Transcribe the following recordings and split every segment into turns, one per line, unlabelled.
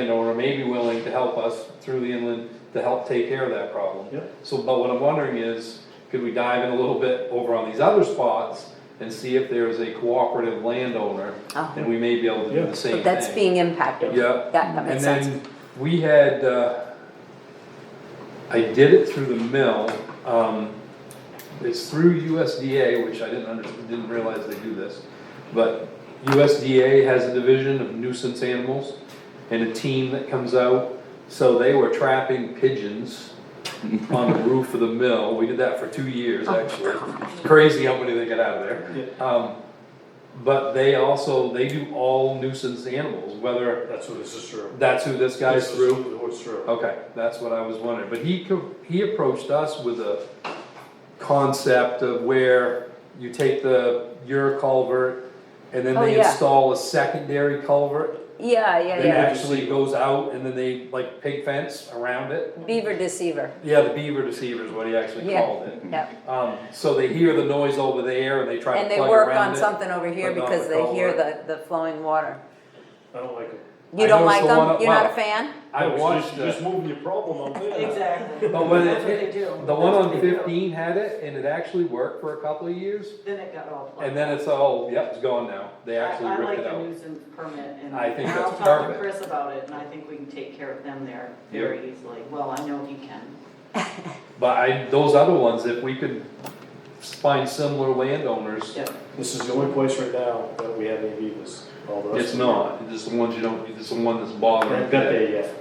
and or may be willing to help us through the inland to help take care of that problem.
Yep.
So, but what I'm wondering is, could we dive in a little bit over on these other spots and see if there is a cooperative landowner?
Oh.
And we may be able to do
Yeah.
the same
But
thing.
that's being impacted.
Yeah.
That, that
And
makes sense.
then we had, uh, I did it through the mill, um, it's through USDA, which I didn't under, didn't realize they do this. But USDA has a division of nuisance animals and a team that comes out, so they were trapping pigeons on the roof of the mill, we did that for two years,
Oh,
actually. Crazy how many they get out of there. Um, but they also, they do all nuisance animals, whether
That's what this is through.
that's who this guy's
This is
through?
What's through.
Okay, that's what I was wondering, but he, co- he approached us with a concept of where you take the, your culvert, and then
Oh,
they
yeah.
install a secondary culvert
Yeah, yeah,
that
yeah.
actually goes out, and then they like pig fence around it.
Beaver deceiver,
Yeah, the beaver deceiver is what he actually
Yeah.
called it.
yeah.
Um, so they hear the noise over there, and they try to
And they
plug
work
around
on
it.
something over here
but not
because
the
they hear the, the flowing water.
I don't like it.
You
I
don't
noticed
like
the one
them?
up-
You're not
wow.
a fan?
I
No, so
watched,
You're just
the-
moving your problem up there.
Exactly.
but when
That's what they
it,
do.
the one
That's
on
what they do.
fifteen had it, and it actually worked for a couple of years,
Then it got all plugged.
And then it's all, yep, it's gone now, they
I-
actually ripped it
I like the
out.
nuisance permit and.
I think
and
that's
I'll talk to
perfect.
Chris about it and I think we can take care of them there very easily. Well, I know he can.
But I, those other ones, if we could find similar landowners,
Yeah.
This is the only place right now that we have any beavers. All the rest
it's
of
not, it's the ones you don't, it's the one that's
them- We
bothering.
haven't got there yet.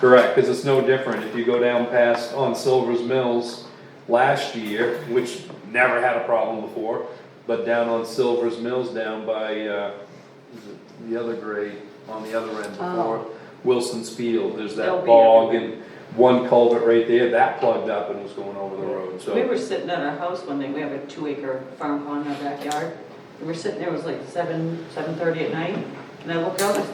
Correct, cause it's no different, if you go down past, on Silver's Mills, last year, which never had a problem before, but down on Silver's Mills down by, uh, is it the other grade, on the other end before, Wilson's Field, there's
Oh. They'll
that
be
bog and one culvert right there, that plugged up and was going over the road, so.
We were sitting at our house one day, we have a two acre farm pond in our backyard. We were sitting there, it was like seven, seven thirty at night, and I looked out, I said,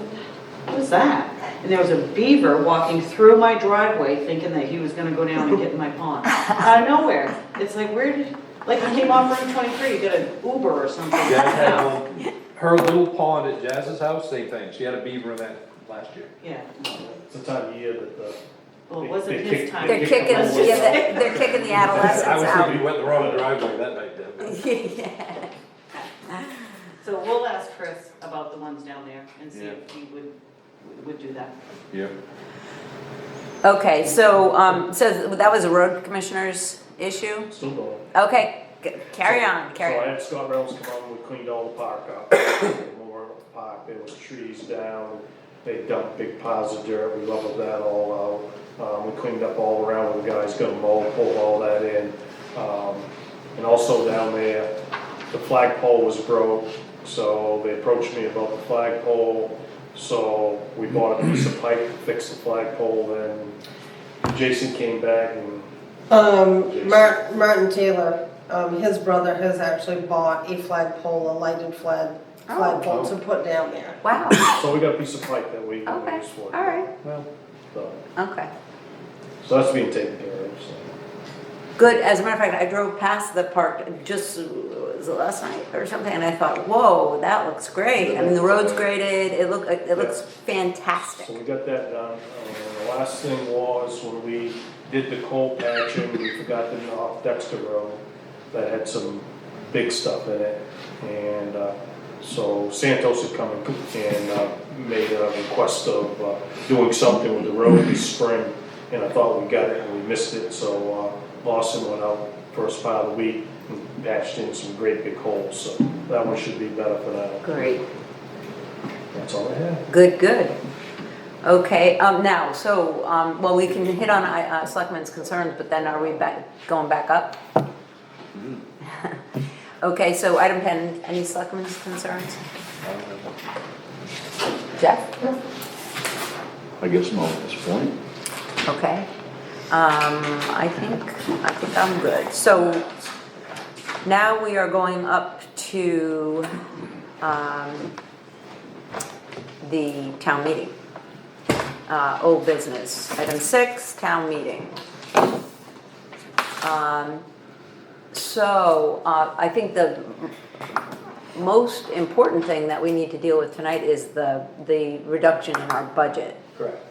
what is that? And there was a beaver walking through my driveway thinking that he was gonna go down and get in my pond. Out of nowhere, it's like, where did, like he came off Route twenty-three, he did an Uber or something.
Jazz had one, her little pond at Jazz's house, same thing, she had a beaver in that last year.
Yeah,
It's the time of year that the.
well,
they-
it wasn't
they
his
kick-
time.
they
They're
kick
kicking,
the
yeah,
Let's
whole-
just say-
they're they're kicking the
Oh,
I
adolescents
was thinking
out.
you went the wrong driveway that night, Deb.
Yeah.
So we'll ask Chris about the ones down there and see if he would, would do that.
Yeah.
Okay, so, um, so that was a road commissioner's issue?
Still going.
Okay, g- carry on,
So I
carry on.
had Scott Reynolds come out and we cleaned all the park up, more of the park, there was trees down, they dumped big piles of dirt, we leveled that all out. Um, we cleaned up all around with the guys, got them all, pulled all that in. Um, and also down there, the flagpole was broke, so they approached me about the flagpole. So we bought a piece of pipe, fixed the flagpole, then Jason came back and
Um, Martin, Martin Taylor, um, his brother has actually bought a flagpole, a lighted flag,
Oh.
flagpole to put down there.
Wow,
So we got a piece of pipe that we we
okay,
use for. it.
alright,
Well,
So,
okay.
so that's being taken care of, so.
Good, as a matter of fact, I drove past the park just, uh, was it last night or something, and I thought, whoa, that looks great. I mean, the road's graded, it look, it looks
So
fantastic.
we got that done. And the last thing was when we did the coal patching, we forgot to knock Dexter Road that had some big stuff in it. And uh, so Santos had come and uh, made a request of uh, doing something with the road this spring. And I thought we got it and we missed it, so uh, Lawson went out first part of the week and patched in some great big holes. So that one should be better for now.
Great,
That's all I have.
good, good. Okay, um, now, so, um, well, we can hit on, uh, Selectmen's concerns, but then are we back, going back up? Okay, so item ten, any Selectmen's concerns?
I don't know.
Jeff?
I guess not at this point.
Okay, um, I think, I think I'm good, so now we are going up to, um, the town meeting. Uh, old business, item six, town meeting. Um, so, uh, I think the most important thing that we need to deal with tonight is the, the reduction in our budget.
Correct.